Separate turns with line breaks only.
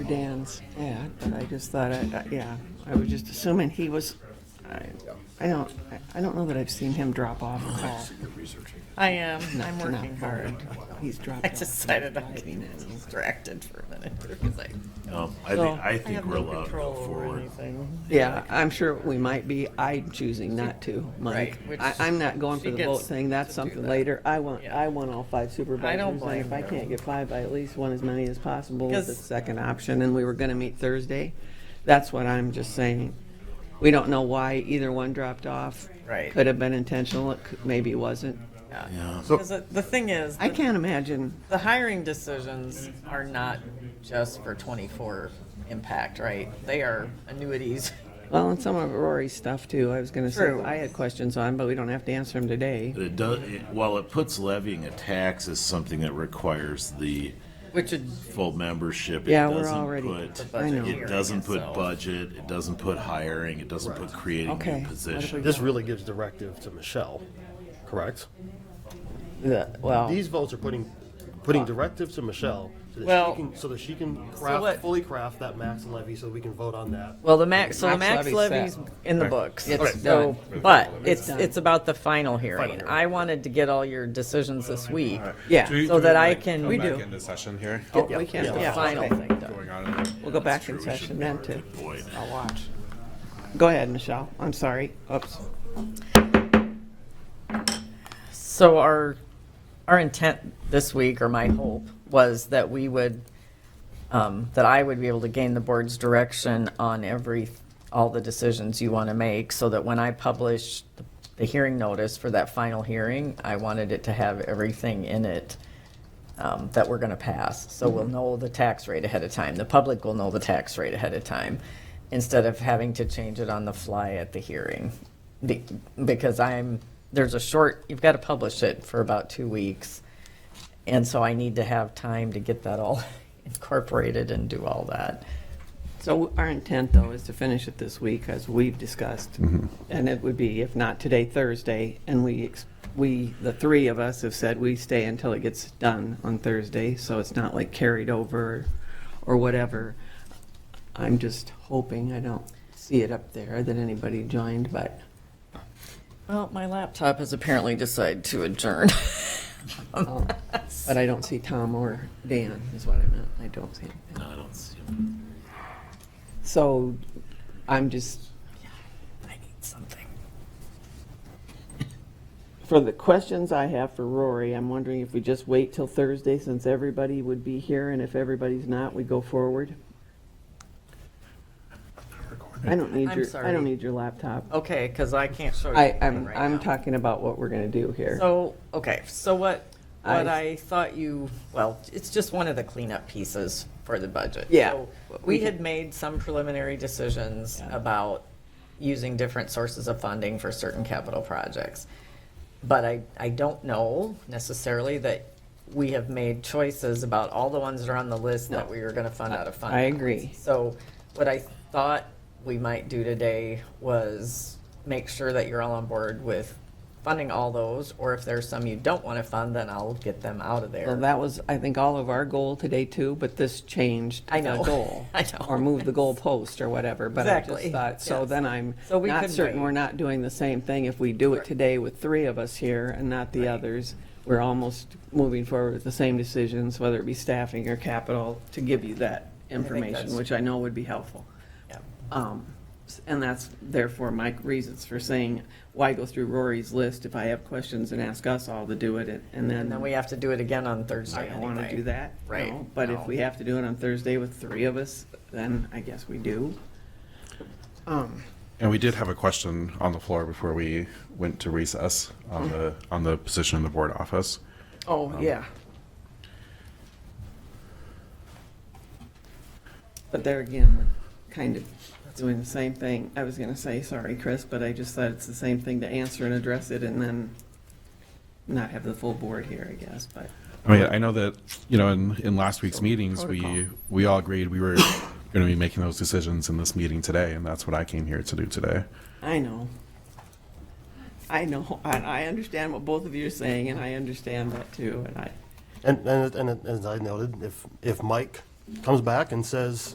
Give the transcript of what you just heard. Dan's ad, but I just thought, I, I- yeah, I was just assuming he was, I, I don't, I- I don't know that I've seen him drop off at all.
I am,
Not-
I'm
not
working hard.
He's dropped
I
off.
decided I'm getting distracted for a minute here because I,
No, Um, I
So-
think, I
I have
think we're
no
allowed to go
control over
forward.
anything.
Yeah, I'm sure we might be. I'm choosing not to, Mike.
Right, which
I, I'm not going for
she
the vote
gets
thing. That's
to
something
do that.
later. I want,
Yeah.
I want all five supervisors. and
blame
If I
her.
can't get five, I at least want as many as possible with the
Because-
second option, and we were gonna meet Thursday. That's what I'm just saying. We don't know why either one dropped off.
Right.
Could have been intentional, it could, maybe wasn't.
Yeah. Because the the thing is,
I can't imagine.
the hiring decisions are not just for twenty-four impact, right? They are annuities.
Well, and some of Rory's stuff too, I was gonna say,
True.
I had questions on, but we don't have to answer them today.
But it does, it- while it puts levying a tax as something that requires the
Which is,
full membership, it
Yeah, we're
doesn't
already-
put,
I know.
it doesn't
So-
put budget, it doesn't put hiring, it doesn't put creating
Okay.
new positions.
This really gives directive to Michelle, correct?
well,
These votes are putting, putting directive to Michelle so that
Well-
she can, so that she can
what-
craft, fully craft that max levy so we can vote on that.
Well, the max, so the
Max
max
levy's
levy's
set.
in the books.
It's
So, but it's,
done.
it's about the final hearing.
hearing.
I wanted to get all your decisions this week.
yeah.
Do we-
So
do we,
that I
like,
can-
come
We
back
do.
Into session here.
Oh, we can,
The
yeah.
final
okay.
thing done.
Going on. in there.
We'll go back in
True, we should
session then to,
avoid it.
I'll watch. Go ahead, Michelle, I'm sorry, oops.
So our, our intent this week, or my hope, was that we would, um, that I would be able to gain the board's direction on every, all the decisions you want to make, so that when I publish the- the hearing notice for that final hearing, I wanted it to have everything in it um, that we're going to pass. So we'll know the tax rate ahead of time. The public will know the tax rate ahead of time instead of having to change it on the fly at the hearing. Be- Because I'm, there's a short, you've got to publish it for about two weeks. And so I need to have time to get that all incorporated and do all that.
So our intent, though, is to finish it this week, as we've discussed. And it would be, if not today, Thursday, and we, ex- we, the three of us have said we stay until it gets done on Thursday, so it's not like carried over or whatever. I'm just hoping, I don't see it up there, that anybody joined, but
Well, my laptop has apparently decided to adjourn.
But I don't see Tom or Dan, is what I meant. I don't see him.
No, I don't see them.
So I'm just,
I need something.
for the questions I have for Rory, I'm wondering if we just wait till Thursday since everybody would be here, and if everybody's not, we go forward? I don't need
I'm
your, I
sorry.
don't need your laptop.
Okay, because I can't show you.
I,
anything
I'm,
right
I'm
now.
talking about what we're gonna do here.
So, okay, so what, what
I-
I thought you, well, it's just one of the cleanup pieces for the budget.
Yeah.
So We had made some preliminary decisions about using different sources of funding for certain capital projects. But I, I don't know necessarily that we have made choices about all the ones that are on the list that we are gonna fund out of fund.
I
balance.
agree.
So what I thought we might do today was make sure that you're all on board with funding all those, or if there's some you don't want to fund, then I'll get them out of
Well,
there.
that was, I think, all of our goal today too, but this changed
I
the
know.
goal.
I know.
Or moved the goalpost or whatever, but I just
Exactly.
thought, so
Yes.
then I'm
So we
not
could
certain
wait.
we're not doing the same thing if we do it today with three of us here and not the others. We're almost moving forward with the same decisions, whether it be staffing or capital, to give you that information,
that's-
which I know would be helpful.
Yeah.
Um, s- And that's therefore my reasons for saying, why go through Rory's list if I have questions and ask us all to do it and- and then.
And then we have to do it again on
I
Thursday
don't want to
anyway.
do that.
Right,
no, But if
no.
we have to do it on Thursday with three of us, then I guess we do. Um,
And we did have a question on the floor before we went to recess on the on the position in the board office.
Oh, yeah. But there again, we're kind of doing the same thing. I was going to say, sorry, Chris, but I just thought it's the same thing to answer and address it and then not have the full board here, I guess, but.
I mean, I know that, you know, in, in last week's meetings, we, we all agreed we were going to be making those decisions in this meeting today, and that's what I came here to do today.
I know. I know, and I understand what both of you are saying, and I understand that too, and I,
And, and, and as I noted, if, if Mike comes back and says,